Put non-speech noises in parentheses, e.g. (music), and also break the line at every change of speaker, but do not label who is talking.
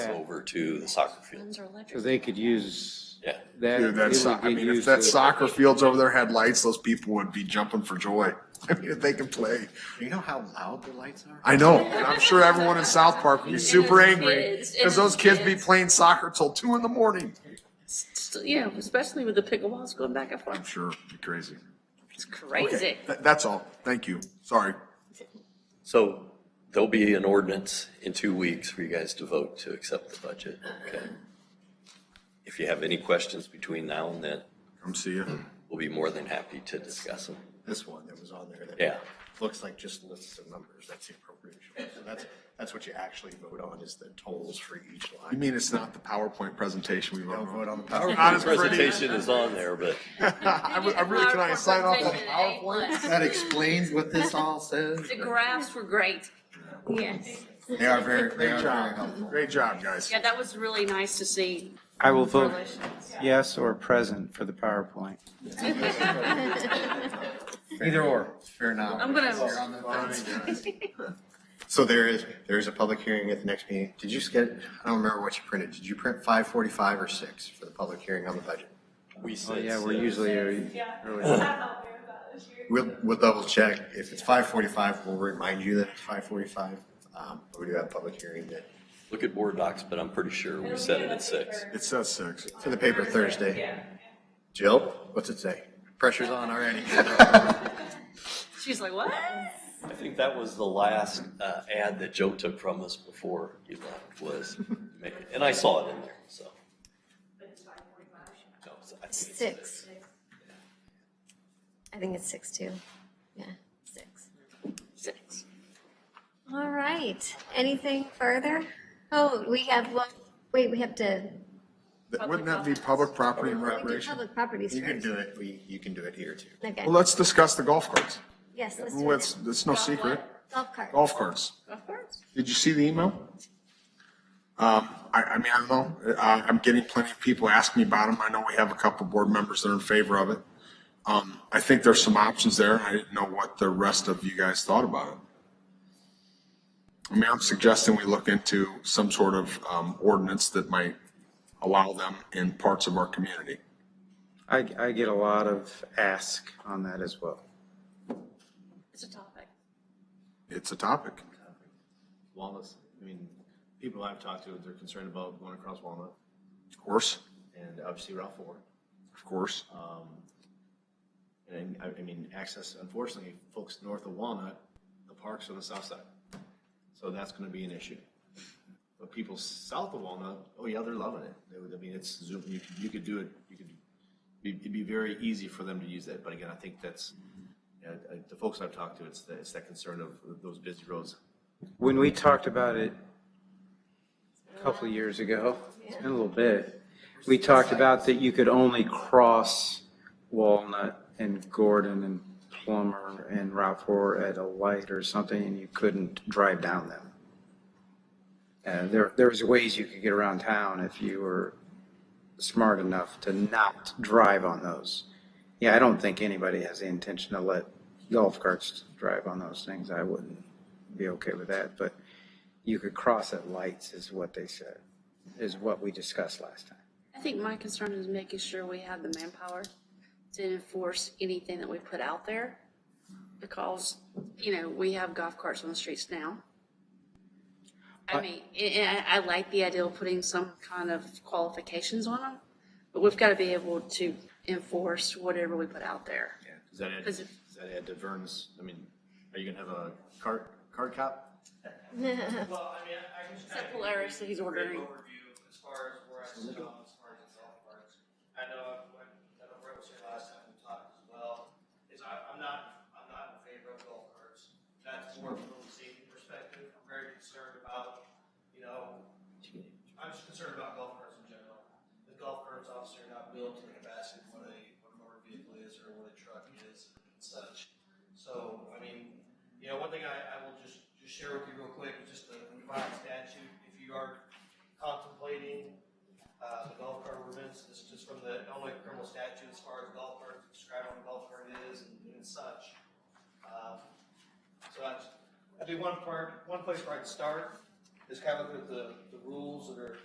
over to the soccer field.
Guns are electric.
So they could use
Yeah.
that.
Dude, that's,
they would
I mean,
use
if that
the-
soccer fields over there had lights, those people would be jumping for joy. (laughs) I mean, if they can play.
You know how loud the lights are?
I know, and I'm sure everyone in South Park would be super angry
kids, and
because those
there's
kids be
kids.
playing soccer till two in the morning.
Still- Yeah, especially with the pickleballs going back and
I'm
forth.
sure, it'd be crazy.
It's crazy.
Th- That's all. Thank you. Sorry.
So there'll be an ordinance in two weeks for you guys to vote to accept the budget. Okay. If you have any questions between now and then,
Come see you.
we'll be more than happy to discuss them.
This one that was on there that
Yeah.
looks like just lists of numbers. That's the appropriation. So that's, that's what you actually vote on is the totals for each
You
line.
mean it's not the PowerPoint presentation we
Don't vote
wrote?
on the
It's
power.
Not as pretty.
Presentation is on there, but
(laughs) I would- I really, can I sign off on PowerPoint?
That explains what this all says.
(laughs) The graphs were great. Yes.
They are very, they
Great
are very helpful.
job. Great job, guys.
Yeah, that was really nice to see.
I will vote
Congratulations.
yes or present for the PowerPoint.
Either or, fair enough.
I'm gonna-
You're on the fence. So there is, there is a public hearing at the next meeting. Did you get, I don't remember what you printed. Did you print five forty-five or six for the public hearing on the budget?
we
Oh,
said.
yeah, we're
six.
usually early.
We'll, we'll double check. If it's five forty-five, we'll remind you that it's five forty-five. Um, but we do have a public hearing that,
Look at board docs, but I'm pretty sure we set it at six.
It says six.
for the paper Thursday. Jill, what's it say? Pressure's on already.
(laughs) She's like, what?
I think that was the last uh, ad that Joe took from us before he left
(laughs)
was, make it. and I saw it in there, so. No, so I think-
Six. I think it's six too. Yeah, six.
Six.
All right. Anything further? Oh, we have one, wait, we have to,
Th- Wouldn't that be public property and
we do
recreation?
public properties
(laughs) You can
first.
do it, we, you can do it here too.
Okay,
Well, let's discuss the golf carts.
yes, let's do
Well, it's,
it.
it's no secret.
Golf cart.
Golf carts.
Of course.
Did you see the email? Um, I, I mean, I don't know. I, I'm getting plenty of people asking me about them. I know we have a couple board members that are in favor of it. Um, I think there's some options there. I didn't know what the rest of you guys thought about it. I mean, I'm suggesting we look into some sort of, um, ordinance that might allow them in parts of our community.
I, I get a lot of ask on that as well.
It's a topic.
It's a topic.
Wallace, I mean, people I've talked to, they're concerned about going across Walnut
Of course,
and obviously Route Four.
of course.
And I, I mean, access, unfortunately, folks north of Walnut, the park's on the south side. So that's gonna be an issue. But people south of Walnut, oh yeah, they're loving it. They would, I mean, it's Zoom, you, could- you could do it, you could, it'd be- it'd be very easy for them to use that. But again, I think that's, uh, uh, the folks I've talked to, it's, the- it's that concern of those busy roads.
When we talked about it a couple of years ago, it's been a little bit, we talked about that you could only cross Walnut and Gordon and Plummer and Route 4 at a light or something, and you couldn't drive down them. And there, there was ways you could get around town if you were smart enough to not drive on those. Yeah, I don't think anybody has the intention to let golf carts drive on those things. I wouldn't be okay with that, but you could cross at lights is what they said, is what we discussed last time.
I think my concern is making sure we have the manpower to enforce anything that we put out there. Because, you know, we have golf carts on the streets now. I mean, I, I I like the idea of putting some kind of qualifications on them, but we've got to be able to enforce whatever we put out there.
Yeah, does that add,
Does
does
it-
that add to Vern's, I mean, are you gonna have a cart, cart cop?
Well, I mean, I I can just
Except
kind of.
Polaris that he's ordering.
Overview as far as where I sit on as far as the golf carts. I know, I, I know Brett was here last time we talked as well, is I, I'm not, I'm not in favor of golf carts. That's more from a safety perspective, I'm very concerned about, you know, I'm just concerned about golf carts in general. The golf carts obviously are not built to the capacity of what a, what a motor vehicle is or what a truck is and such. So, I mean, you know, one thing I, I will just, just share with you real quick, is just the revised statute, if you are contemplating, uh, the golf cart ordinance, this is just from the Illinois criminal statute as far as golf carts, describe what a golf cart is and and such. Um, So that's, that'd be one part, one place where I'd start. is kind of look at the, the rules that are